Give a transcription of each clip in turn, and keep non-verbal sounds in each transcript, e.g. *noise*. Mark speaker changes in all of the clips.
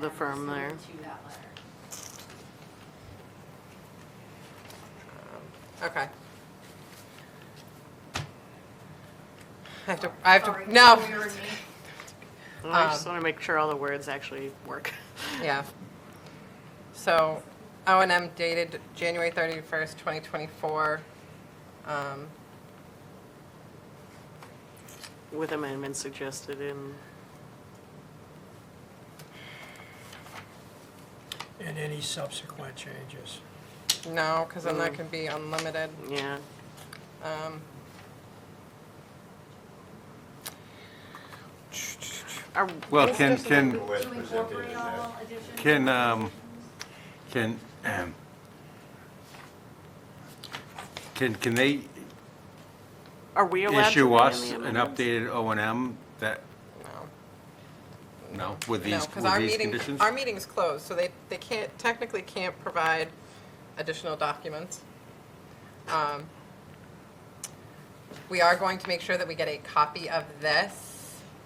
Speaker 1: the firm there.
Speaker 2: To that letter.
Speaker 3: Okay. I have to, I have
Speaker 2: Sorry,
Speaker 3: to, no,
Speaker 2: we were me.
Speaker 1: Well, I
Speaker 3: Um,
Speaker 1: just want to make sure all the words actually work. *laughs*
Speaker 3: yeah. So, O and M dated January thirty-first, twenty twenty-four. Um,
Speaker 1: With amendments suggested in,
Speaker 4: and any subsequent changes.
Speaker 3: no, because then that can be unlimited.
Speaker 1: yeah,
Speaker 3: Um,
Speaker 1: Are-
Speaker 5: Well, can, can,
Speaker 2: To incorporate all additions.
Speaker 5: can, um, can, um, can, can they
Speaker 1: are we allowed to?
Speaker 5: issue
Speaker 1: put in
Speaker 5: us
Speaker 1: the
Speaker 5: an
Speaker 1: amendments?
Speaker 5: updated O and M that,
Speaker 3: no.
Speaker 5: no, with
Speaker 3: No,
Speaker 5: these,
Speaker 3: because
Speaker 5: with
Speaker 3: our
Speaker 5: these
Speaker 3: meeting,
Speaker 5: conditions?
Speaker 3: our meeting's closed, so they, they can't, technically can't provide additional documents. Um, We are going to make sure that we get a copy of this,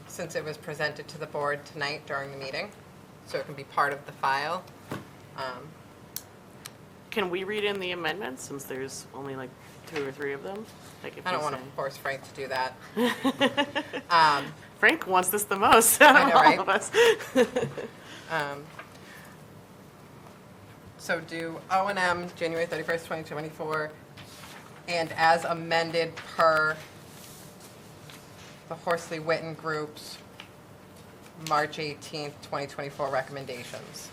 Speaker 3: since it was presented to the board tonight during the meeting, so it can be part of the file. Um,
Speaker 1: Can we read in the amendments, since there's only like two or three of them? Like, if
Speaker 3: I
Speaker 1: you
Speaker 3: don't want to
Speaker 1: say-
Speaker 3: force Frank to do that.
Speaker 1: *laughs*
Speaker 3: Um,
Speaker 1: Frank wants this the most out
Speaker 3: I
Speaker 1: of
Speaker 3: know,
Speaker 1: all
Speaker 3: right?
Speaker 1: of us. *laughs*
Speaker 3: Um, So do O and M, January 31st, 2024, and as amended per the Horsley Witten Group's March 18th, 2024 recommendations.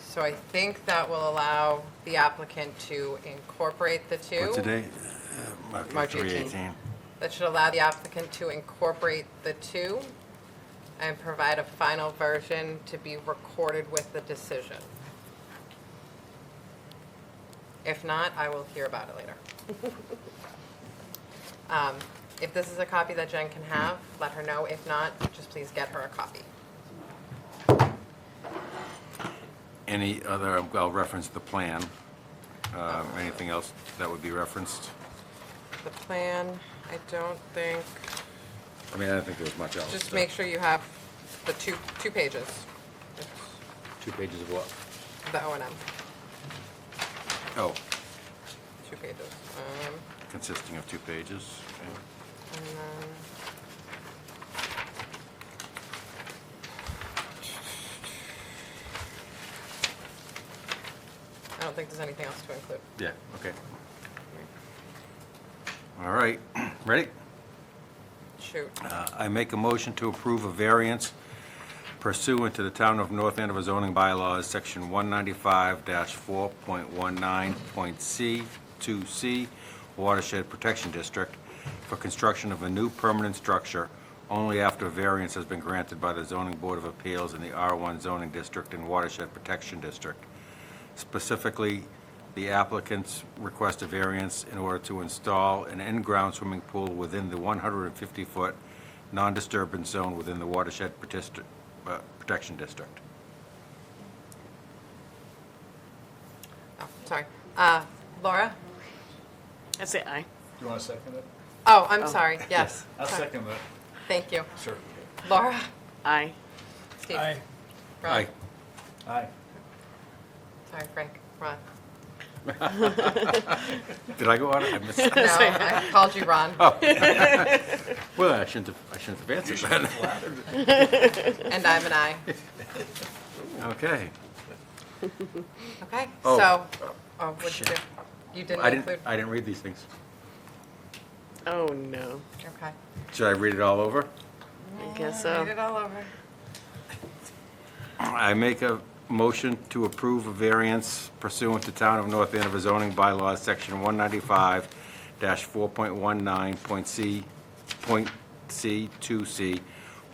Speaker 3: So I think that will allow the applicant to incorporate the two.
Speaker 5: But today, uh,
Speaker 3: March
Speaker 5: okay, three
Speaker 3: 18.
Speaker 5: eighteen.
Speaker 3: That should allow the applicant to incorporate the two and provide a final version to be recorded with the decision. If not, I will hear about it later. Um, If this is a copy that Jen can have, let her know. If not, just please get her a copy.
Speaker 5: Any other, I'll reference the plan. Um, Anything else that would be referenced?
Speaker 3: The plan, I don't think,
Speaker 5: I mean, I don't think there's much else.
Speaker 3: just
Speaker 5: so-
Speaker 3: make sure you have the two, two pages. It's
Speaker 5: Two pages of what?
Speaker 3: The O and M,
Speaker 5: Oh,
Speaker 3: two pages. Um,
Speaker 5: consisting of two pages. okay.
Speaker 3: And then... I don't think there's anything else to include.
Speaker 5: Yeah, okay. All right, ready?
Speaker 3: Shoot.
Speaker 6: Uh-huh.
Speaker 5: Uh, I make a motion to approve a variance pursuant to the Town of North Andover zoning bylaws, Section 195-4.19.C, 2C, Watershed Protection District, for construction of a new permanent structure only after variance has been granted by the Zoning Board of Appeals in the R1 zoning district and Watershed Protection District. Specifically, the applicants request a variance in order to install an in-ground swimming pool within the 150-foot non-disturbance zone within the watershed Protest- uh, protection district.
Speaker 3: Oh, sorry. Uh, Laura?
Speaker 1: I say aye.
Speaker 6: You want to second it?
Speaker 3: Oh, I'm sorry. Yes.
Speaker 6: I'll
Speaker 3: Sorry.
Speaker 6: second that,
Speaker 3: Thank you.
Speaker 6: sure.
Speaker 3: Laura?
Speaker 1: Aye. *laughs*
Speaker 3: Steve?
Speaker 4: Aye,
Speaker 3: Ron?
Speaker 5: Aye.
Speaker 6: Aye.
Speaker 3: Sorry, Frank.
Speaker 6: *laughs*
Speaker 3: Ron.
Speaker 5: Did I go out? I missed.
Speaker 3: *laughs* No, I called you Ron.
Speaker 5: Oh. Well, I shouldn't have, I shouldn't have answered that.
Speaker 3: *laughs* And I'm an
Speaker 5: *laughs*
Speaker 3: I.
Speaker 5: Okay.
Speaker 3: Okay,
Speaker 5: Oh.
Speaker 3: so, oh, what'd you do?
Speaker 5: Shit.
Speaker 3: You didn't
Speaker 5: I didn't,
Speaker 3: include?
Speaker 5: I didn't read these things.
Speaker 1: Oh, no.
Speaker 3: Okay.
Speaker 5: Should I read it all over?
Speaker 1: I guess so.
Speaker 3: Read it all over.
Speaker 5: I make a motion to approve a variance pursuant to Town of North Andover zoning bylaws, Section 195-4.19.c, point C, 2C,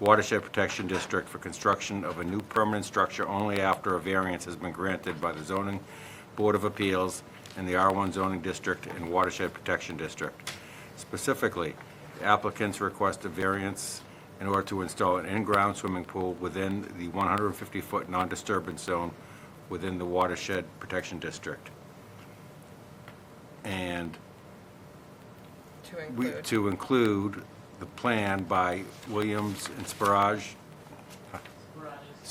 Speaker 5: Watershed Protection District for construction of a new permanent structure only after a variance has been granted by the zoning Board of Appeals and the R1 zoning district and Watershed Protection District. Specifically, applicants request a variance in order to install an in-ground swimming pool within the 150-foot non-disturbance zone within the watershed protection district. And
Speaker 3: To
Speaker 5: we,
Speaker 3: include.
Speaker 5: to include the plan by Williams and Sparaj